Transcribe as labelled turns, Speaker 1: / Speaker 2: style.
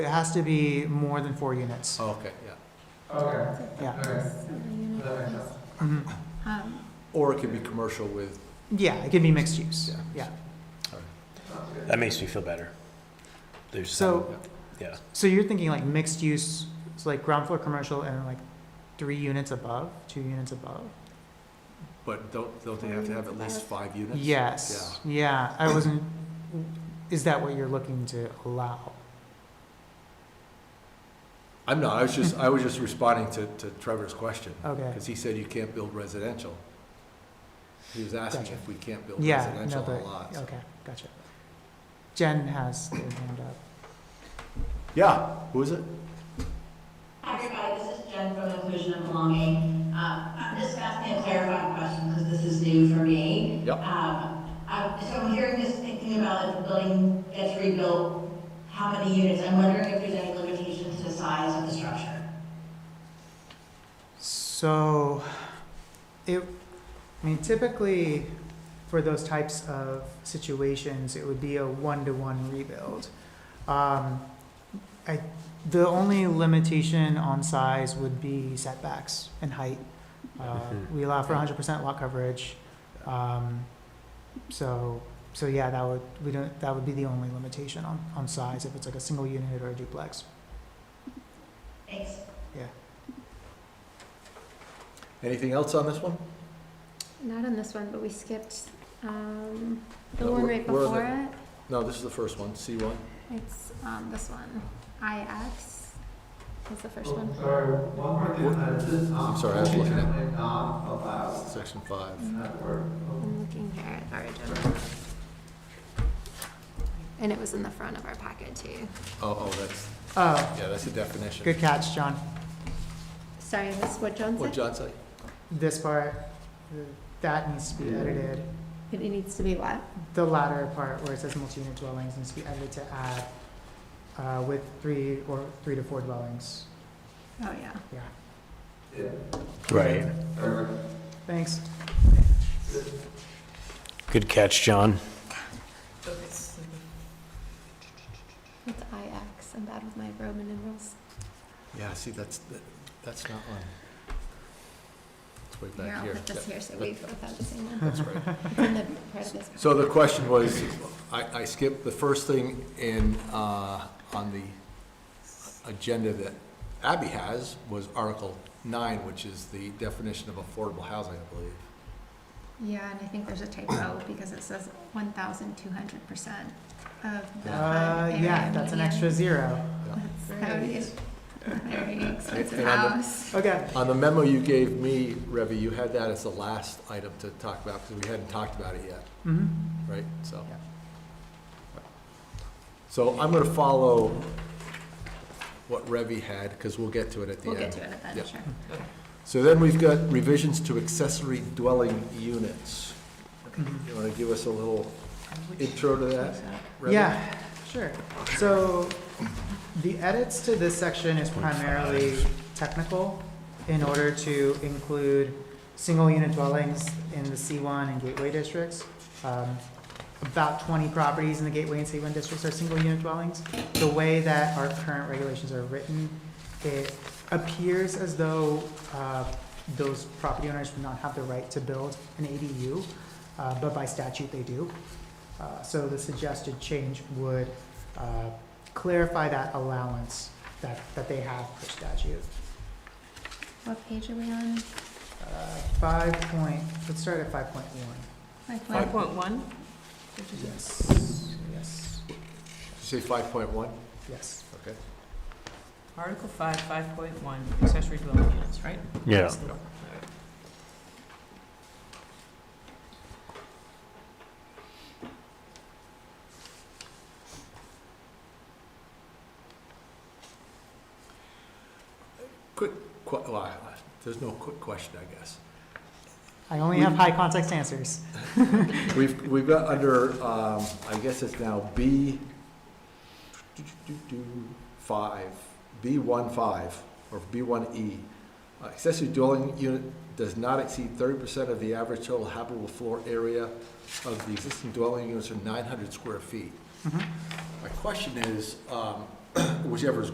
Speaker 1: It has to be more than four units.
Speaker 2: Okay, yeah.
Speaker 3: Okay,
Speaker 1: Yeah,
Speaker 3: okay. That makes sense.
Speaker 1: Mhm.
Speaker 4: Um,
Speaker 2: Or it could be commercial with,
Speaker 1: yeah, it can be mixed use, yeah.
Speaker 5: That makes me feel better. There's
Speaker 1: So,
Speaker 5: yeah.
Speaker 1: so you're thinking like mixed use, so like ground floor commercial and like three units above, two units above?
Speaker 2: but don't, don't they have to have at least five units?
Speaker 1: Yes, yeah, I wasn't, is that what you're looking to allow?
Speaker 2: I'm not, I was just, I was just responding to, to Trevor's question,
Speaker 1: Okay,
Speaker 2: because he said you can't build residential. He was asking if we can't build
Speaker 1: yeah, no,
Speaker 2: residential on
Speaker 1: but,
Speaker 2: lots.
Speaker 1: okay, gotcha. Jen has their hand up.
Speaker 2: Yeah, who is it?
Speaker 6: Hi, everybody, this is Jen from Inclusion and Belonging. Uh, I'm just asking a clarifying question because this is new for me.
Speaker 2: Yep.
Speaker 6: Um, I- So I'm hearing this, thinking about if the building gets rebuilt, how many units? I'm wondering if there's any limitations to the size of the structure.
Speaker 1: So, it, I mean, typically, for those types of situations, it would be a one-to-one rebuild. Um, I, the only limitation on size would be setbacks and height. Uh,
Speaker 5: Mhm.
Speaker 1: we allow for hundred percent lot coverage, um, so, so yeah, that would, we don't, that would be the only limitation on, on size, if it's like a single unit or a duplex.
Speaker 6: Thanks.
Speaker 2: Anything else on this one?
Speaker 4: Not on this one, but we skipped um, the
Speaker 2: No,
Speaker 4: one
Speaker 2: we're-
Speaker 4: right
Speaker 2: we're on
Speaker 4: before it.
Speaker 2: No, this is the first one, C one.
Speaker 4: It's um, this one. IX is the first
Speaker 3: Oh,
Speaker 4: one.
Speaker 3: Sorry, one more thing that is, um.
Speaker 2: I'm sorry, I was looking at-
Speaker 3: definitely Not allowed
Speaker 2: Section five.
Speaker 3: in that word.
Speaker 4: Mm-hmm.
Speaker 3: Oh.
Speaker 4: I'm looking here at our agenda. And it was in the front of our packet too.
Speaker 2: Oh, oh, that's,
Speaker 1: Oh,
Speaker 2: yeah, that's a definition.
Speaker 1: good catch, John.
Speaker 4: Sorry, this is what John
Speaker 2: What
Speaker 4: said?
Speaker 2: John said?
Speaker 1: this part, th- that needs to be edited.
Speaker 4: It needs to be what?
Speaker 1: The latter part where it says multi-unit dwellings needs to be edited to add, uh, with three or three to four dwellings.
Speaker 4: Oh, yeah.
Speaker 1: Yeah,
Speaker 3: Yeah,
Speaker 5: Right.
Speaker 3: perfect.
Speaker 1: thanks.
Speaker 5: Good catch, John.
Speaker 4: It's IX. I'm bad with my Roman numerals.
Speaker 2: Yeah, see, that's, that- that's not on. It's way
Speaker 4: Here,
Speaker 2: back
Speaker 4: I'll
Speaker 2: here.
Speaker 4: put this
Speaker 2: Yeah,
Speaker 4: here so
Speaker 2: that-
Speaker 4: we both have the same one.
Speaker 2: That's right.
Speaker 4: It's in the part of this.
Speaker 2: So the question was, I, I skipped the first thing in, uh, on the agenda that Abby has was Article nine, which is the definition of affordable housing, I believe.
Speaker 4: Yeah, and I think there's a typo because it says one thousand two hundred percent of the.
Speaker 1: Uh,
Speaker 4: HUD
Speaker 1: yeah,
Speaker 4: area
Speaker 1: that's an
Speaker 4: median.
Speaker 1: extra zero.
Speaker 4: That's very, ex- very expensive
Speaker 2: And on the-
Speaker 4: house.
Speaker 1: Okay,
Speaker 2: On the memo you gave me, Revy, you had that as the last item to talk about, because we hadn't talked about it yet,
Speaker 1: hmm
Speaker 2: right? So.
Speaker 1: Yeah.
Speaker 2: So I'm gonna follow what Revy had, because we'll get to it at the end.
Speaker 4: We'll get to it at
Speaker 2: Yeah.
Speaker 4: that, sure.
Speaker 2: So then we've got revisions to accessory dwelling units.
Speaker 1: Mhm.
Speaker 2: You want to give us a little intro to that? Remy?
Speaker 1: Yeah, sure. So the edits to this section is primarily technical in order to include single-unit dwellings in the C1 and Gateway districts. Um, About 20 properties in the Gateway and C1 districts are single-unit dwellings. The way that our current regulations are written, it appears as though uh, those property owners do not have the right to build an ADU, uh, but by statute they do. Uh, So the suggested change would uh, clarify that allowance that, that they have per statute.
Speaker 4: What page are we on?
Speaker 1: Uh, Five point, let's start at five point one.
Speaker 4: Like
Speaker 2: Five
Speaker 4: what?
Speaker 7: Point one?
Speaker 1: Yes, yes,
Speaker 2: Say 5.1,
Speaker 1: yes.
Speaker 2: okay?
Speaker 7: Article five, five point one, accessory dwelling units, right?
Speaker 5: Yeah.
Speaker 2: Quick, que- well, I- there's no quick question, I guess.
Speaker 1: I only have high context answers.
Speaker 2: We've, we've got under, um, I guess it's now B five, B one five, or B one E. Accessory dwelling unit does not exceed thirty percent of the average total habitable floor area of the existing dwelling units or nine hundred square feet.
Speaker 1: Mhm.
Speaker 2: My question is, um, whichever's